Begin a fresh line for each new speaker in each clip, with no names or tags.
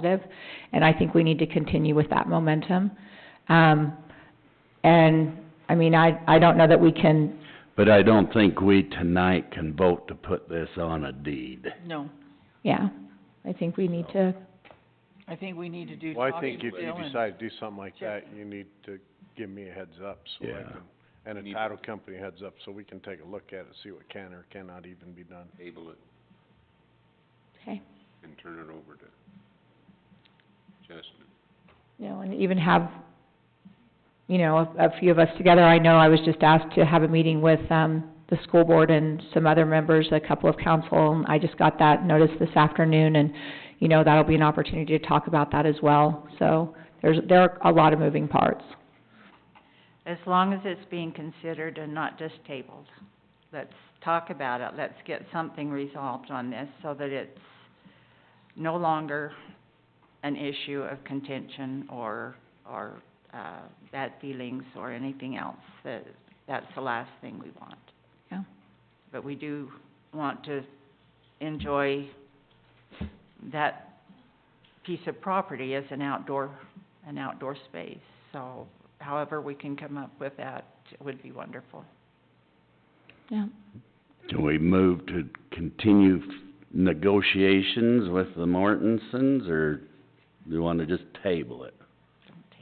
positive, and I think we need to continue with that momentum. Um, and, I mean, I, I don't know that we can,
But I don't think we tonight can vote to put this on a deed.
No,
yeah, I think we need to,
I think we need to do
Well,
talking
I think
to
if you
Dylan.
decide to do something like
Check.
that, you need to give me a heads up, so I
Yeah.
can, and a title company heads up, so we can take a look at it, see what can or cannot even be done.
table it
okay,
and turn it over to Justin.
you know, and even have, you know, a, a few of us together. I know I was just asked to have a meeting with, um, the school board and some other members, a couple of council, and I just got that notice this afternoon, and, you know, that'll be an opportunity to talk about that as well. So, there's, there are a lot of moving parts.
As long as it's being considered and not just tabled. Let's talk about it, let's get something resolved on this so that it's no longer an issue of contention or, or, uh, bad feelings or anything else. That, that's the last thing we want.
Yeah.
But we do want to enjoy that piece of property as an outdoor, an outdoor space, so however we can come up with that would be wonderful.
Yeah.
Can we move to continue f- negotiations with the Mortensons, or do you wanna just table it?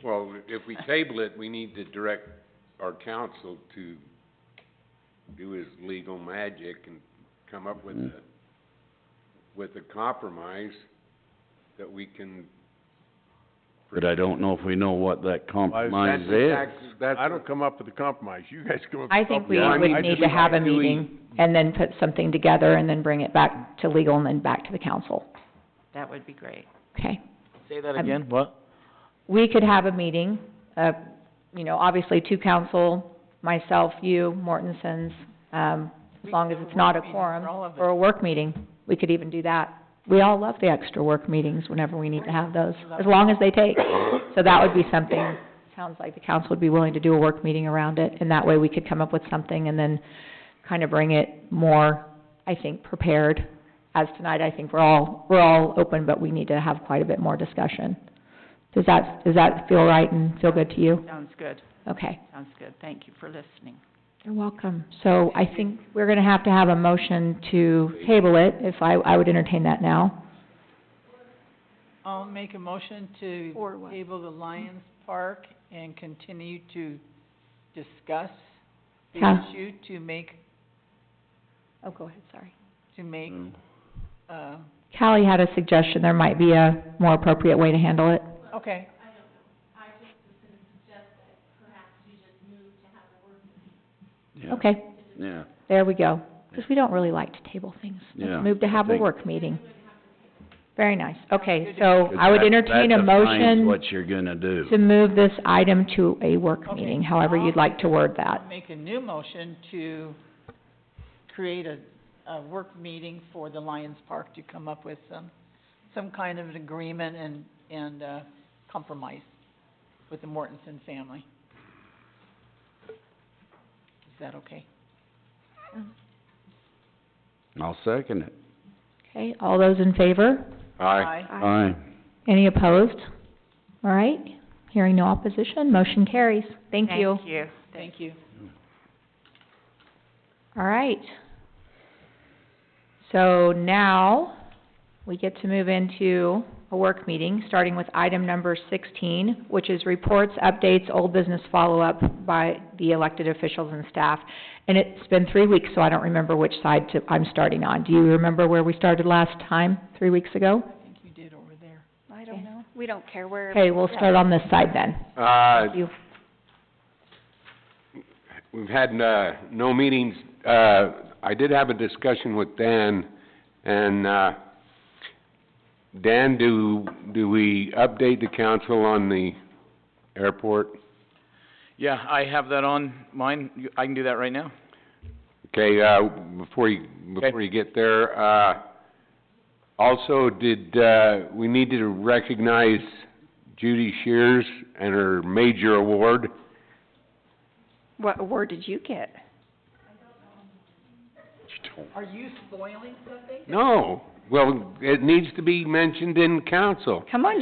Well, if we table it, we need to direct our counsel to do his legal magic and come up with a, with a compromise that we can.
But I don't know if we know what that compromise
That's
is.
exactly, that's.
I don't come up with a compromise, you guys come up with
I
a
think we
Yeah, I
would
mean,
I
need
just
to have a
like doing-
meeting and then put something together and then bring it back to legal and then back to the council.
That would be great.
Okay.
Say that
Um,
again, what?
We could have a meeting, uh, you know, obviously two council, myself, you, Mortensons, um, as
We
long as
could do a
it's not a
work meeting
quorum.
for all of
Or a work meeting. We could even do that. We all love the extra work meetings whenever we need to have those, as long as they take. So that would be something, sounds like the council would be willing to do a work meeting around it, and that way we could come up with something and then kind of bring it more, I think, prepared. As tonight, I think we're all, we're all open, but we need to have quite a bit more discussion. Does that, does that feel right and feel good to you?
Sounds good,
Okay,
sounds good. Thank you for listening.
you're welcome. So I think we're gonna have to have a motion to table it, if I, I would entertain that now.
I'll make a motion to table the Lions Park and continue to discuss the
Yeah.
issue to make,
Oh, go ahead, sorry.
to make, uh,
Callie had a suggestion, there might be a more appropriate way to handle it.
okay.
Yeah,
Okay,
Yeah,
there we go. Because we don't really like to table things.
Yeah,
Let's move to
I
have a
think-
work meeting. Very nice. Okay, so I would
that-
entertain a
that defines
motion
what you're gonna do.
to move this item to a work
Okay.
meeting, however you'd like to word that.
I'll Make a new motion to create a, a work meeting for the Lions Park to come up with some, some kind of an agreement and, and, uh, compromise with the Mortensen family. Is that okay?
I'll second it.
Okay, all those in favor?
Aye.
Aye.
Any opposed? All right, hearing no opposition, motion carries. Thank you.
Thank you.
Thank you.
All right. So now, we get to move into a work meeting, starting with item number sixteen, which is reports, updates, old business follow-up by the elected officials and staff. And it's been three weeks, so I don't remember which side to, I'm starting on. Do you remember where we started last time, three weeks ago?
I think you did over there.
I don't know. We don't care where.
Okay, we'll start on this side then.
Uh,
You,
we've had, uh, no meetings, uh, I did have a discussion with Dan, and, uh, Dan, do, do we update the council on the airport?
Yeah, I have that on mine, You- I can do that right now.
Okay, uh, before you, before you get there, uh, also, did, uh, we need to recognize Judy Shears and her major award?
What award did you get?
Are you spoiling something?
No, well, it needs to be mentioned in council.
Come on,